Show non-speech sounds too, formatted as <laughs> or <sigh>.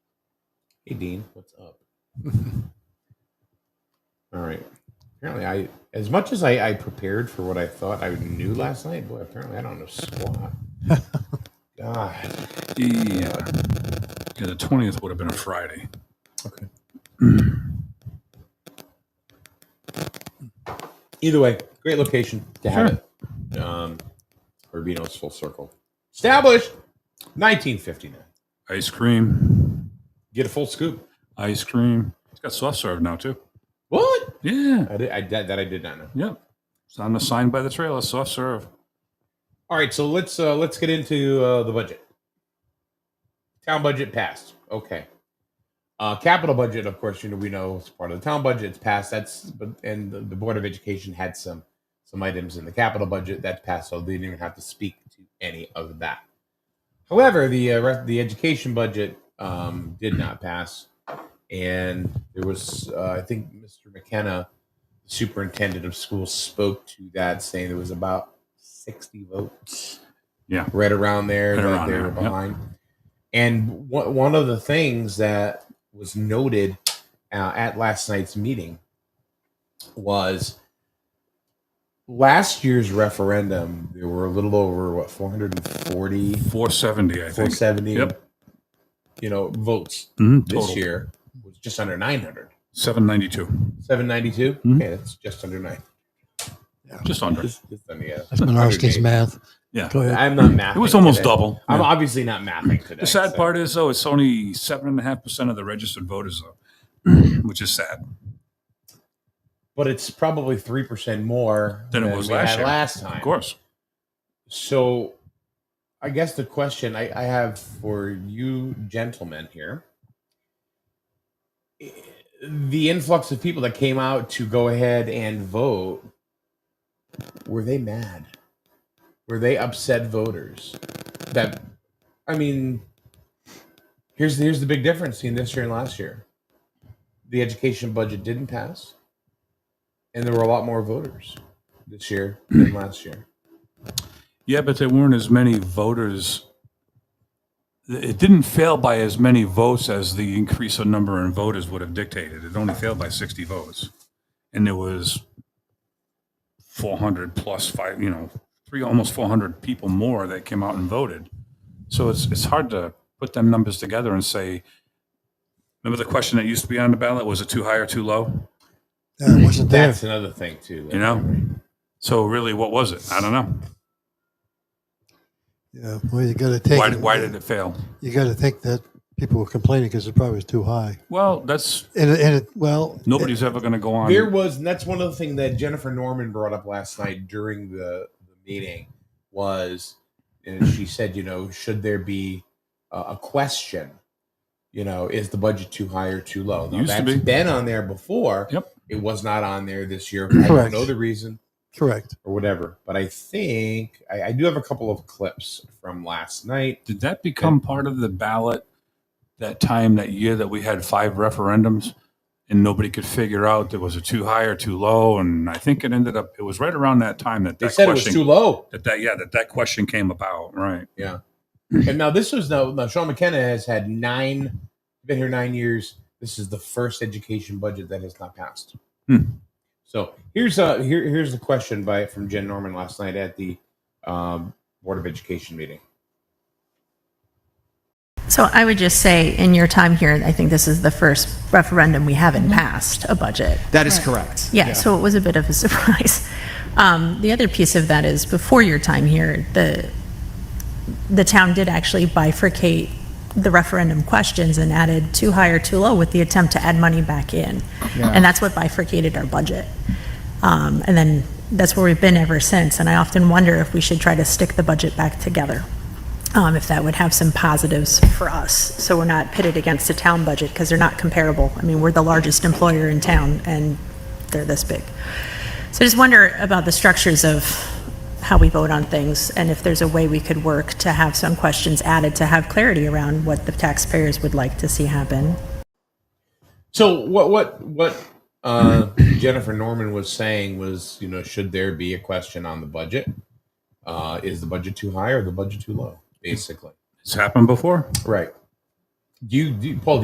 Hey, Dean, what's up? <laughs> All right. Apparently, I as much as I, I prepared for what I thought I knew last night. Boy, apparently I don't know <laughs> squat. God. Yeah, yeah. The twentieth would have been a Friday. Okay. Either way, great location to have Sure. it. Um, Urbino's full circle, established 1959. Ice cream. Get a full scoop. Ice cream. It's got soft serve now too. What? Yeah. I did, I, that, that I did not know. Yep. It's on the sign by the trailer. Soft serve. All right, so let's uh, let's get into uh, the budget. Town budget passed. Okay. Uh, capital budget, of course, you know we know it's part of the town budget. It's passed. That's but and the, the board of education had some some items in the capital budget that passed, so they didn't even have to speak to any of that. However, the uh, re- the education budget um, did not pass, and there was uh, I think Mr. McKenna, the superintendent of schools, spoke to that, saying there was about sixty votes Yeah. right around there Right that around they there, were yep. behind. And one one of the things that was noted uh, at last night's meeting was last year's referendum. There were a little over what 440, Four seventy, I think. 470, Yep. you know, votes Mhm, this total. year was just under 900. Seven ninety two. 792? Mhm. Yeah, that's just under nine. Just under. Just, just under, yeah. That's Minarski's 108. math. Yeah. Go ahead. I'm not mathing. It was almost today. double. I'm Yeah. obviously not mathing today. The sad so- part is though, it's only seven and a half percent of the registered voters though, <clears throat> which is sad. But it's probably 3% more Than it was we last had year. last time. Of course. So I guess the question I, I have for you gentlemen here eh, the influx of people that came out to go ahead and vote were they mad? Were they upset voters? That I mean here's here's the big difference between this year and last year. The education budget didn't pass and there were a lot more voters this year than last year. Yeah, but there weren't as many voters. It didn't fail by as many votes as the increase in number in voters would have dictated. It only failed by 60 votes. And there was 400 plus five, you know, three, almost 400 people more that came out and voted. So it's, it's hard to put them numbers together and say, remember the question that used to be on the ballot? Was it too high or too low? Yeah, it wasn't there. That's another thing too. You know? So really, what was it? I don't know. Yeah, well, you got to take. Why, it- why did it fail? You got to think that people were complaining because it probably was too high. Well, that's And it, and it well, Nobody's ever going to go on. There was, and that's one of the things that Jennifer Norman brought up last night during the, the meeting was, and she said, you know, should there be a, a question? You know, is the budget too high or too low? Now, Used to that's be. been on there before. Yep. It was not on there this year. I don't Correct. know the reason correct. or whatever, but I think I, I do have a couple of clips from last night. Did that become part of the ballot that time, that year that we had five referendums and nobody could figure out there was a too high or too low? And I think it ended up, it was right around that time that They that said it was question, too low. that, that, yeah, that that question came about. Right. And now this was now, now Sean McKenna has had nine, been here nine years. This is the first education budget that has not passed. Hmm. So here's a here here's the question by from Jen Norman last night at the um, Board of Education meeting. So I would just say, in your time here, I think this is the first referendum we haven't passed a budget. That is correct. Yeah, so it was a bit of a <laughs> surprise. Um, The other piece of that is, before your time here, the, the town did actually bifurcate the referendum questions and added too high or too low with the attempt to add money back in. And that's what bifurcated our budget. Um, And then, that's where we've been ever since, and I often wonder if we should try to stick the budget back together, um, if that would have some positives for us, so we're not pitted against the town budget, because they're not comparable. I mean, we're the largest employer in town, and they're this big. So I just wonder about the structures of how we vote on things, and if there's a way we could work to have some questions added to have clarity around what the taxpayers would like to see happen. So what what what uh, <coughs> Jennifer Norman was saying was you know should there be a question on the budget? Uh, is the budget too high or the budget too low? Basically, It's happened before. right. Do you, do you Paul?